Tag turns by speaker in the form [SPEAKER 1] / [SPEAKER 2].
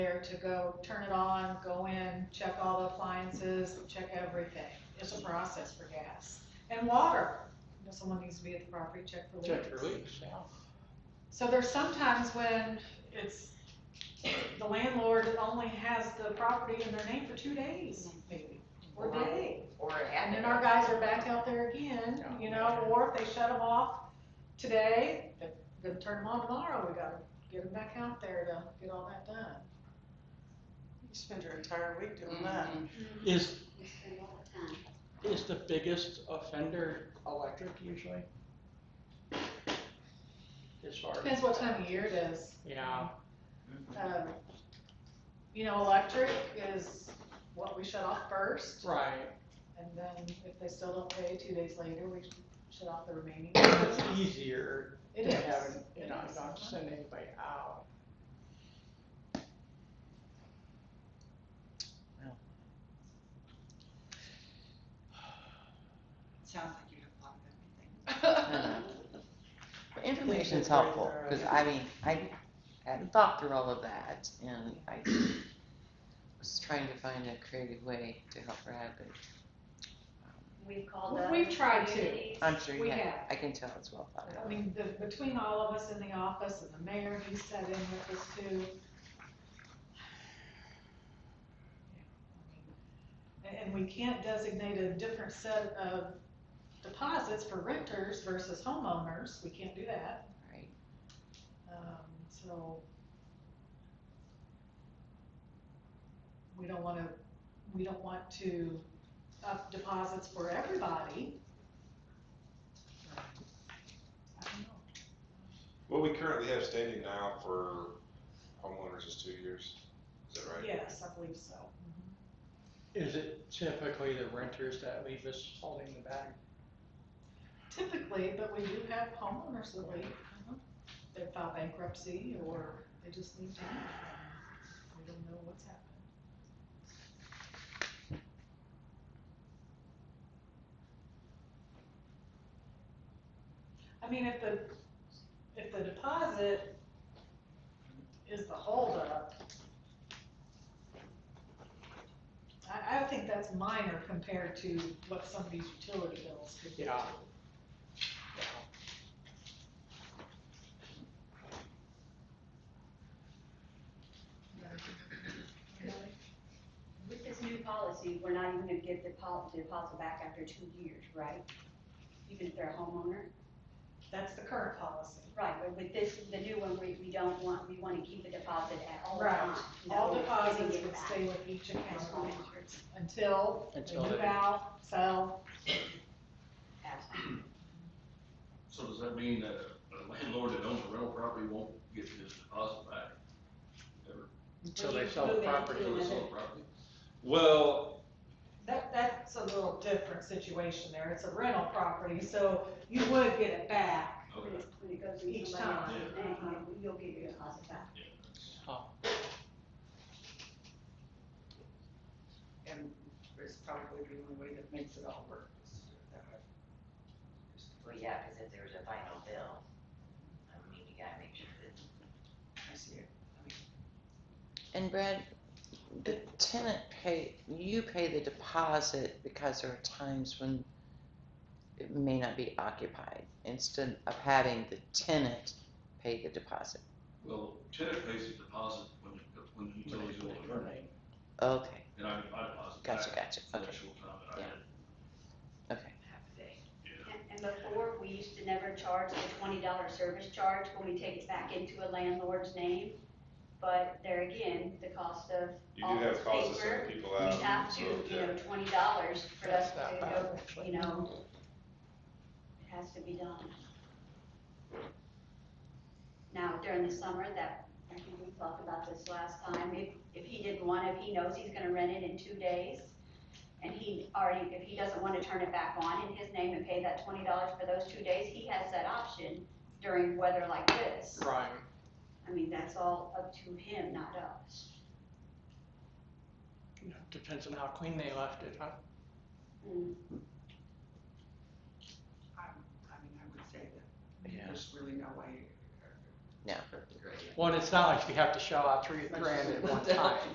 [SPEAKER 1] there to go turn it on, go in, check all the appliances, check everything. It's a process for gas and water. You know, someone needs to be at the property, check for leaks.
[SPEAKER 2] Check your leaks, yeah.
[SPEAKER 1] So there's sometimes when it's, the landlord only has the property in their name for two days, maybe, or a day.
[SPEAKER 3] Or it
[SPEAKER 1] And
[SPEAKER 3] had
[SPEAKER 1] then
[SPEAKER 3] to
[SPEAKER 1] our
[SPEAKER 3] go.
[SPEAKER 1] guys are back out there again, you know, or if they shut them off today, they're gonna turn them on tomorrow, we gotta get them back out there to get all that done.
[SPEAKER 4] You spend your entire week
[SPEAKER 1] Mm-hmm.
[SPEAKER 4] doing that.
[SPEAKER 3] Mhm.
[SPEAKER 2] Is,
[SPEAKER 5] We spend all the time.
[SPEAKER 2] is the biggest offender electric usually? As far as,
[SPEAKER 1] Depends what time of year it is.
[SPEAKER 2] yeah,
[SPEAKER 1] Um, You know, electric is what we shut off first,
[SPEAKER 2] right.
[SPEAKER 1] and then if they still don't pay, two days later, we shut off the remaining.
[SPEAKER 2] It's easier
[SPEAKER 1] It
[SPEAKER 2] to have,
[SPEAKER 1] is.
[SPEAKER 2] it, you know,
[SPEAKER 1] It is.
[SPEAKER 2] not to send anybody out.
[SPEAKER 3] Sounds like you have a lot of everything.
[SPEAKER 6] But Information's helpful, because I mean, I hadn't thought through all of that, and I was trying to find a creative way to help her have it.
[SPEAKER 5] We've called up.
[SPEAKER 1] We've tried to.
[SPEAKER 5] communities.
[SPEAKER 6] I'm sure you
[SPEAKER 1] We
[SPEAKER 6] have,
[SPEAKER 1] have.
[SPEAKER 6] I can tell it's well thought
[SPEAKER 1] I
[SPEAKER 6] out.
[SPEAKER 1] mean, the, between all of us in the office and the mayor, he sat in with us too. And, and we can't designate a different set of deposits for renters versus homeowners, we can't do that,
[SPEAKER 6] Right.
[SPEAKER 1] um, so. We don't wanna, we don't want to up deposits for everybody. I don't know.
[SPEAKER 7] What we currently have standing now for homeowners is two years, is that right?
[SPEAKER 1] Yes, I believe so.
[SPEAKER 2] Is it typically the renters that leave us holding the bag?
[SPEAKER 1] Typically, but we do have homeowners that leave. They file bankruptcy or they just need to leave. We don't know what's happened. I mean, if the, if the deposit is the holdup, I, I think that's minor compared to what some of these utility bills could be.
[SPEAKER 2] Yeah.
[SPEAKER 5] With this new policy, we're not even gonna give the deposit, deposit back after two years, right? Even if they're a homeowner?
[SPEAKER 1] That's the current policy.
[SPEAKER 5] Right, but with this, the new one, we, we don't want, we wanna keep the deposit at all
[SPEAKER 1] Right.
[SPEAKER 5] times.
[SPEAKER 1] All deposits would stay with each account until they
[SPEAKER 2] Until
[SPEAKER 1] move
[SPEAKER 2] they-
[SPEAKER 1] out, sell.
[SPEAKER 8] So does that mean that a landlord that owns a rental property won't get his deposit back? Ever,
[SPEAKER 2] Until they sell the property.
[SPEAKER 8] until they sell the property?
[SPEAKER 7] Well,
[SPEAKER 1] That, that's a little different situation there. It's a rental property, so you would get it back.
[SPEAKER 5] When
[SPEAKER 8] Okay,
[SPEAKER 5] it's- when it goes in
[SPEAKER 1] Each
[SPEAKER 5] somebody else's
[SPEAKER 1] time.
[SPEAKER 5] name, you- you'll get your deposit back.
[SPEAKER 8] yeah. that's-
[SPEAKER 3] And it's probably the only way that makes it all work is to do it that way.
[SPEAKER 9] Well, yeah, because if there was a final bill, I mean, you gotta make sure that
[SPEAKER 3] I see it.
[SPEAKER 6] And Brad, the tenant pay, you pay the deposit because there are times when it may not be occupied, instead of having the tenant pay the deposit.
[SPEAKER 8] Well, tenant pays the deposit when, the- when the utilities go on the rent,
[SPEAKER 6] Okay,
[SPEAKER 8] and I, I deposit back
[SPEAKER 6] gotcha,
[SPEAKER 8] for
[SPEAKER 6] gotcha,
[SPEAKER 8] the
[SPEAKER 6] okay,
[SPEAKER 8] actual time that I
[SPEAKER 6] Yeah.
[SPEAKER 8] had,
[SPEAKER 9] half a day.
[SPEAKER 8] yeah.
[SPEAKER 5] And, and before, we used to never charge the twenty dollar service charge when we take it back into a landlord's name. But there again, the cost of,
[SPEAKER 7] you do have costs to send
[SPEAKER 5] Office
[SPEAKER 7] people
[SPEAKER 5] we
[SPEAKER 7] out.
[SPEAKER 5] have to,
[SPEAKER 7] so,
[SPEAKER 5] you
[SPEAKER 7] yeah.
[SPEAKER 5] know, twenty dollars for
[SPEAKER 2] Um, That's
[SPEAKER 5] us to
[SPEAKER 2] not bad,
[SPEAKER 5] go,
[SPEAKER 2] actually.
[SPEAKER 5] you know, it has to be done. Now, during the summer, that, I think we talked about this last time, if, if he didn't want it, if he knows he's gonna rent it in two days, and he already, if he doesn't wanna turn it back on in his name and pay that twenty dollars for those two days, he has that option during weather like this.
[SPEAKER 2] Right.
[SPEAKER 5] I mean, that's all up to him, not us.
[SPEAKER 2] Yeah, Depends on how clean they left it, huh?
[SPEAKER 5] Mm,
[SPEAKER 3] I mean, I would say that
[SPEAKER 2] Yeah.
[SPEAKER 3] there's really no way
[SPEAKER 6] No.
[SPEAKER 9] Great.
[SPEAKER 2] Well, and it's not like you have to shell out three grand at one time.